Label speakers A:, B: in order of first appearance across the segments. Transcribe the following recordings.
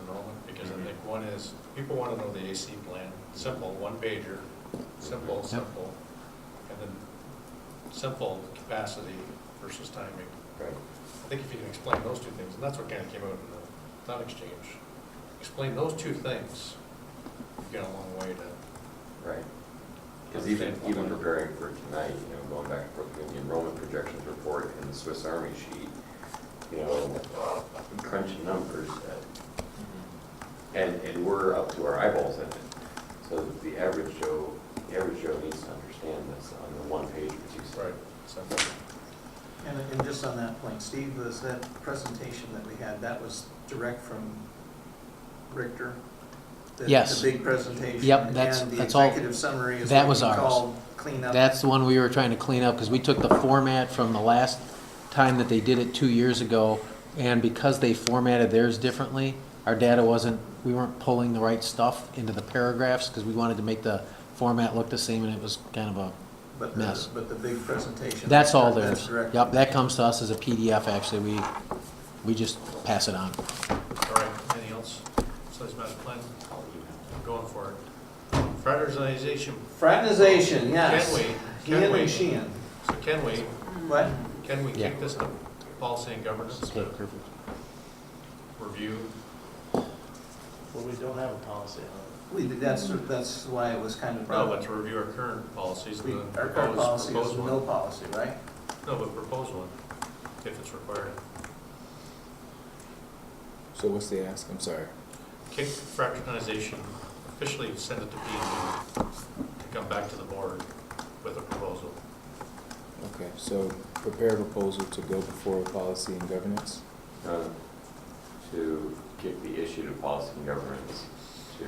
A: enrollment, because I think one is, people want to know the AC plan, simple, one pager, simple, simple, and then simple capacity versus timing.
B: Right.
A: I think if you can explain those two things, and that's what kind of came out in the thought exchange, explain those two things, you've got a long way to,
B: Right. Because even,
A: Understand.
B: even preparing for tonight, you know, going back and forth between the enrollment projections report and the Swiss Army sheet, you know, crunching numbers, uh, and, and we're up to our eyeballs in it. So the average Joe, the average Joe needs to understand this on the one page that you said.
A: right, simple.
C: And, and just on that point, Steve, was that presentation that we had, that was direct from Richter? The-
D: Yes.
C: The big presentation?
D: Yep, that's-
C: And the
D: that's all-
C: executive summary is
D: that
C: what
D: was
C: we
D: ours.
C: call cleanup?
D: That's the one we were trying to clean up, because we took the format from the last time that they did it two years ago, and because they formatted theirs differently, our data wasn't, we weren't pulling the right stuff into the paragraphs, because we wanted to make the format look the same, and it was kind of a
C: But
D: Yes.
C: the, but the big presentation?
D: That's all
C: that's
D: theirs.
C: direct.
D: Yep, that comes to us as a PDF, actually, we, we just pass it on.
A: All right, anything else? Besides master plan, I'm going for it. Fraternization,
C: Fraternization, yes.
A: Can we- can
C: Ian
A: we-
C: and Sheehan.
A: so can we,
C: What?
A: can we
D: Yeah.
A: kick this to policy and governance to review?
E: Well, we don't have a policy on
C: We, that's, that's why it was kind of
A: No,
C: brought
A: but
C: up.
A: to review our current policies
C: We-
A: and then
C: Our current
A: propose,
C: policy is
A: propose
C: no
A: one.
C: policy, right?
A: No, but propose one, if it's required.
F: So what's the ask? I'm sorry.
A: Kick fraternization, officially send it to P and D, to come back to the board with a proposal.
F: Okay, so prepare a proposal to go before policy and governance?
B: Uh, To give the issue to policy and governance, to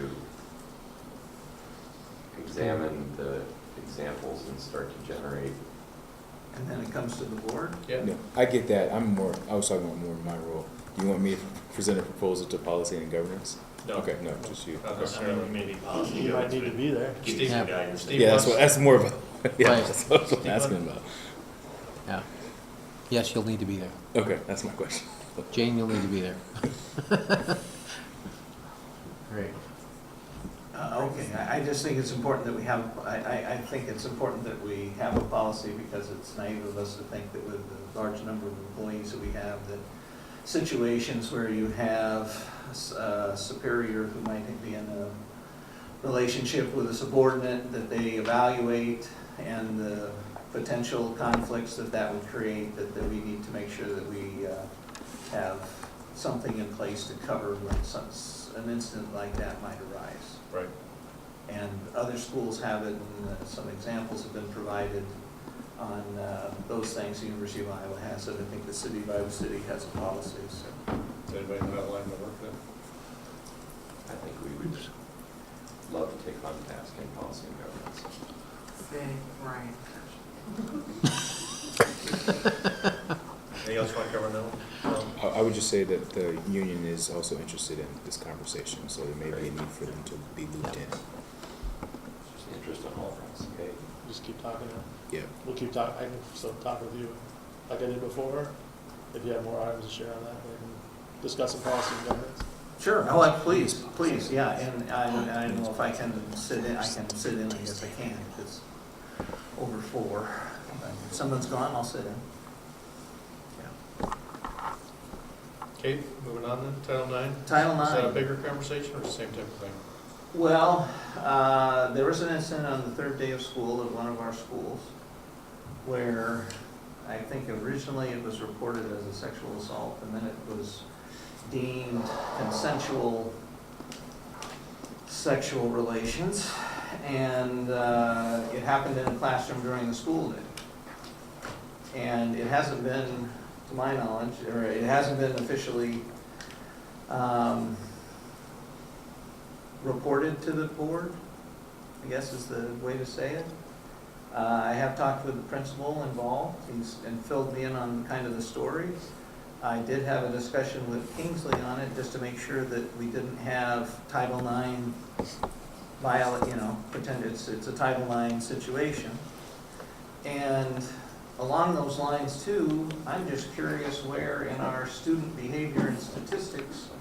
B: examine the examples and start to generate
C: And then it comes to the board?
A: Yeah.
F: No, I get that. I'm more, I was talking about more in my role. Do you want me to present a proposal to policy and governance?
A: No.
F: Okay, no, just you.
A: Not
F: Okay.
A: necessarily.
G: Maybe
E: it. You might need to be there.
A: Steve,
D: Yeah.
A: Steve
F: Yeah, that's what,
A: wants-
F: that's more about, yeah,
D: Right.
F: that's what I'm asking about.
D: Yeah. Yes, you'll need to be there.
F: Okay, that's my question.
D: Jane, you'll need to be there. Great.
C: Uh, Okay, I, I just think it's important that we have, I, I, I think it's important that we have a policy because it's naive of us to think that with the large number of employees that we have, that situations where you have a superior who might be in a relationship with a subordinate, that they evaluate and the potential conflicts that that would create, that, that we need to make sure that we, uh, have something in place to cover when some, an incident like that might arise.
A: Right.
C: And other schools have it, and uh, some examples have been provided on uh, those things. The University of Iowa has it, I think the city of Iowa City has a policy, so.
A: Does anybody in that line to work with?
B: I think we would love to take on task in policy and governance.
G: Right.
A: Anything else you want to cover now? Um,
F: I, I would just say that the union is also interested in this conversation, so there may be a need for them to be looped in.
B: It's just interest on all fronts, okay?
E: Just keep talking.
F: Yeah.
E: We'll keep talking. I can still talk with you like I did before. If you have more items to share on that, we can discuss the policy and governance.
C: Sure, oh, I- please, please, yeah, and I, I don't know if I can sit in, I can sit in, I guess I can, if it's over four. But If someone's gone, I'll sit in. Yeah.
A: Okay, moving on then, Title IX.
C: Title
A: Is that a
C: nine.
A: bigger conversation or the same type of thing?
C: Well, uh, there was an incident on the third day of school at one of our schools where I think originally it was reported as a sexual assault and then it was deemed consensual sexual relations. And uh, it happened in a classroom during the school day. And it hasn't been, to my knowledge, or it hasn't been officially um, reported to the board, I guess is the way to say it. Uh, I have talked with the principal involved, he's, and filled me in on kind of the story. I did have a discussion with Kingsley on it, just to make sure that we didn't have Title IX viola you know, pretend it's, it's a Title IX situation. And along those lines too, I'm just curious where in our student behavior and statistics